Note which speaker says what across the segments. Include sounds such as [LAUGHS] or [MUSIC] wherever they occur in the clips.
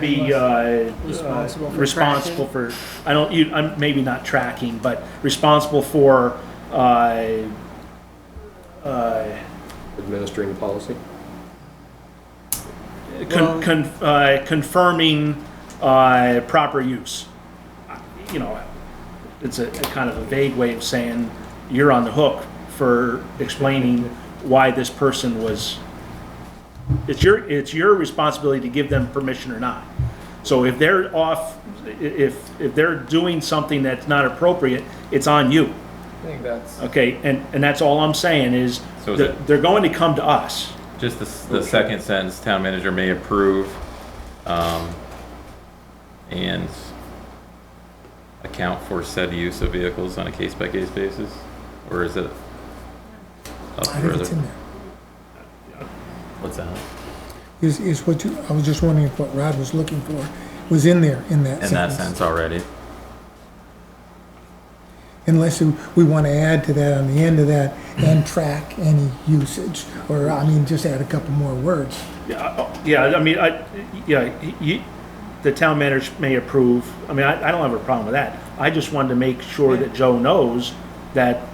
Speaker 1: be uh, uh,
Speaker 2: Responsible for
Speaker 1: responsible for, I don't, you, I'm maybe not tracking, but responsible for, uh, uh,
Speaker 3: administering policy?
Speaker 1: con-
Speaker 2: Well-
Speaker 1: con- uh, confirming uh, proper use. You know, it's a a kind of a vague way of saying you're on the hook for explaining why this person was, it's your, it's your responsibility to give them permission or not. So if they're off, i- if, if they're doing something that's not appropriate, it's on you.
Speaker 4: I think that's.
Speaker 1: Okay, and, and that's all I'm saying is
Speaker 5: So is
Speaker 1: that
Speaker 5: it-
Speaker 1: they're going to come to us.
Speaker 5: Just the, s- the second sentence, town manager may approve, um, and account for said use of vehicles on a case-by-case basis, or is it up
Speaker 6: I think it's in
Speaker 5: further?
Speaker 6: there.
Speaker 5: What's that?
Speaker 6: Is, is what you, I was just wondering if what Rod was looking for was in there, in that
Speaker 5: In that
Speaker 6: sentence.
Speaker 5: sense already,
Speaker 6: Unless you- we want to add to that on the end of that
Speaker 5: [CLEARS THROAT]
Speaker 6: and track any usage, or, I mean, just add a couple more words.
Speaker 1: Yeah, I- Uh, yeah, I mean, I, yeah, you, the town manager may approve, I mean, I, I don't have a problem with that. I just wanted to make sure that Joe knows that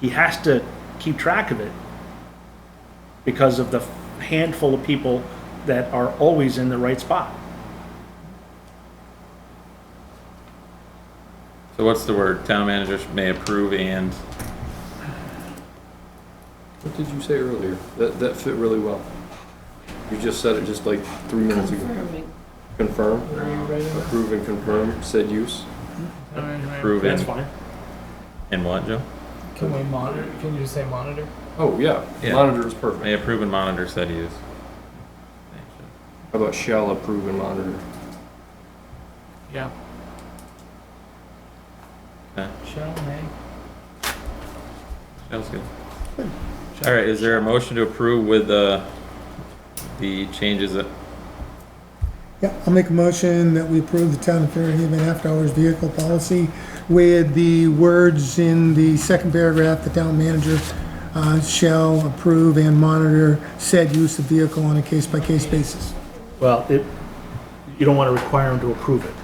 Speaker 1: he has to keep track of it because of the handful of people that are always in the right spot.
Speaker 5: so what's the word, town manager sh- may approve and,
Speaker 3: What did you say earlier? That, that fit really well. You just said it just like three minutes ago.
Speaker 2: Confirming.
Speaker 3: Confirm,
Speaker 4: Are you ready?
Speaker 3: approve and confirm said use.
Speaker 5: approve and,
Speaker 1: fine.
Speaker 5: and what, Joe?
Speaker 4: Can we monitor? Can you just say monitor?
Speaker 3: Oh, yeah,
Speaker 5: Yeah.
Speaker 3: monitor is perfect.
Speaker 5: May approve and monitor said use.
Speaker 3: How about shall approve and monitor?
Speaker 4: Yeah.
Speaker 5: Okay.
Speaker 4: Shall may.
Speaker 5: That was good. All right, is there a motion to approve with, uh, the changes that
Speaker 6: Yeah, I'll make a motion that we approve the town of Fairhaven after-hours vehicle policy with the words in the second paragraph, the town manager uh, shall approve and monitor said use of vehicle on a case-by-case basis.
Speaker 1: Well, it, you don't want to require him to approve it.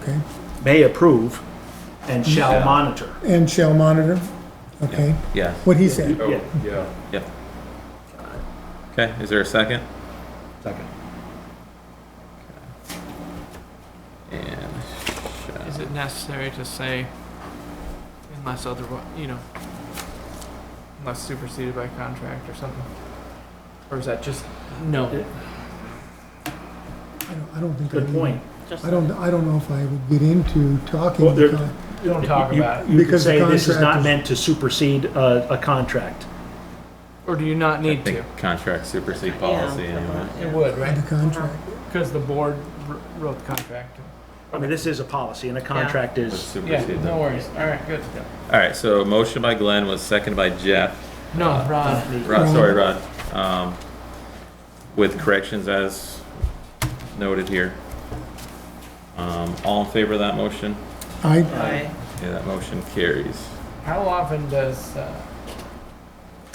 Speaker 6: Okay?
Speaker 1: May approve and shall
Speaker 5: Yeah.
Speaker 1: monitor.
Speaker 6: And shall monitor, okay?
Speaker 5: Yeah,
Speaker 6: What he said.
Speaker 3: Oh,
Speaker 1: Yeah.
Speaker 4: [LAUGHS]
Speaker 3: yeah.
Speaker 5: yeah. Okay, is there a second?
Speaker 1: Second.
Speaker 5: And shall-
Speaker 4: Is it necessary to say unless otherwise, you know, unless superseded by contract or something? Or is that just no?
Speaker 6: I don't- I don't think. I
Speaker 1: Good
Speaker 6: would-
Speaker 1: point.
Speaker 2: Just
Speaker 6: I don't, I don't know if I would get into talking.
Speaker 1: Well, there-
Speaker 6: because-
Speaker 4: Don't talk
Speaker 1: You-
Speaker 4: about it.
Speaker 1: You could
Speaker 6: Because the
Speaker 1: say this is
Speaker 6: contract
Speaker 1: not
Speaker 6: is-
Speaker 1: meant to supersede a, a contract.
Speaker 4: Or do you not
Speaker 5: I
Speaker 4: need to?
Speaker 5: think contract supersede
Speaker 2: Yeah.
Speaker 5: policy anyway.
Speaker 4: It would, right? [LAUGHS]
Speaker 6: The contract.
Speaker 4: Because the board wr- wrote the contract.
Speaker 1: I mean, this is a policy and a contract
Speaker 5: Would
Speaker 1: is,
Speaker 4: Yeah.
Speaker 5: supersede
Speaker 4: No
Speaker 5: them.
Speaker 4: worries. All right. Good.
Speaker 5: All right, so motion by Glenn was seconded by Jeff.
Speaker 4: No, Uh, Ron.
Speaker 5: Rod,
Speaker 6: Ron.
Speaker 5: sorry, Rod. Um, with corrections as noted here. Um, all in favor of that motion?
Speaker 6: I,
Speaker 2: Aye.
Speaker 5: Yeah, that motion carries.
Speaker 4: How often does? Uh,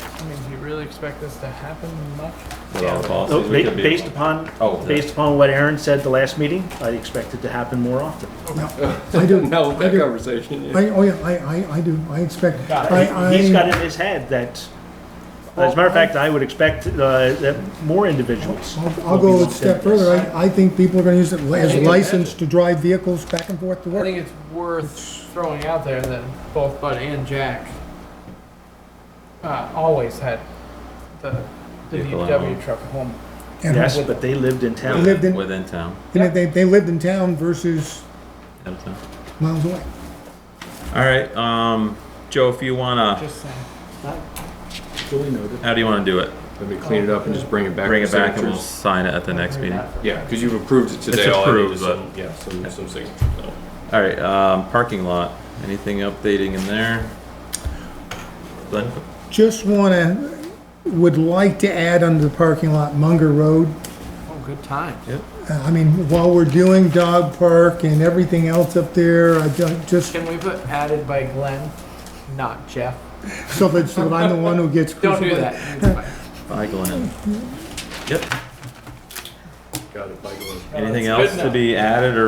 Speaker 4: I mean, do you really expect this to happen much?
Speaker 5: With all the
Speaker 1: Oh,
Speaker 5: policies, we
Speaker 1: ba-
Speaker 5: could be-
Speaker 1: based upon,
Speaker 5: Oh, the-
Speaker 1: based upon what Aaron said the last meeting, I expect it to happen more often.
Speaker 6: I do.
Speaker 3: Now with
Speaker 6: I
Speaker 3: that
Speaker 6: do.
Speaker 3: conversation, yeah.
Speaker 6: I, oh yeah, I, I, I do, I expect.
Speaker 4: Got it.
Speaker 6: I-
Speaker 1: He's
Speaker 6: I-
Speaker 1: got in his head that, as a matter of fact, I would expect, uh, that more individuals.
Speaker 6: I'll,
Speaker 1: will
Speaker 6: I'll
Speaker 1: be
Speaker 6: go a
Speaker 1: lumped
Speaker 6: step
Speaker 1: into this.
Speaker 6: further. I, I think people are gonna use it as
Speaker 4: think-
Speaker 6: license to drive vehicles back and forth to
Speaker 4: I
Speaker 6: work.
Speaker 4: think it's worth throwing out there that both Bud and Jack uh, always had the, the
Speaker 5: Vehicle at
Speaker 4: DPW
Speaker 5: home.
Speaker 4: truck at home.
Speaker 6: And-
Speaker 1: Yes, but they lived in town.
Speaker 6: Lived in-
Speaker 5: Within town,
Speaker 6: And if they, they lived in town versus
Speaker 5: out of town.
Speaker 6: miles away.
Speaker 5: All right, um, Joe, if you wanna,
Speaker 4: Just saying.
Speaker 1: Duly noted.
Speaker 5: how do you wanna do it?
Speaker 3: Let me clean it up and just bring it back.
Speaker 5: Bring it
Speaker 3: for
Speaker 5: back and we'll
Speaker 3: signatures.
Speaker 5: sign it at the next meeting.
Speaker 3: Yeah, because you've approved it today.
Speaker 5: It's
Speaker 3: all I need
Speaker 5: approved,
Speaker 3: is
Speaker 5: but-
Speaker 3: some- Yeah, some, some signatures. so.
Speaker 5: All right, um, parking lot, anything updating in there? Glenn?
Speaker 6: Just wanna, would like to add under the parking lot Munger Road.
Speaker 4: Oh, good time.
Speaker 6: Uh, I mean, while we're doing dog park and everything else up there, I ju- just,
Speaker 4: Can we put added by Glenn, not Jeff?
Speaker 6: so that, so that I'm the one who gets
Speaker 4: Don't
Speaker 6: crucified.
Speaker 4: do that. It's fine.
Speaker 5: Bye, Glenn. Yep.
Speaker 3: got it by going.
Speaker 5: Anything else to be added or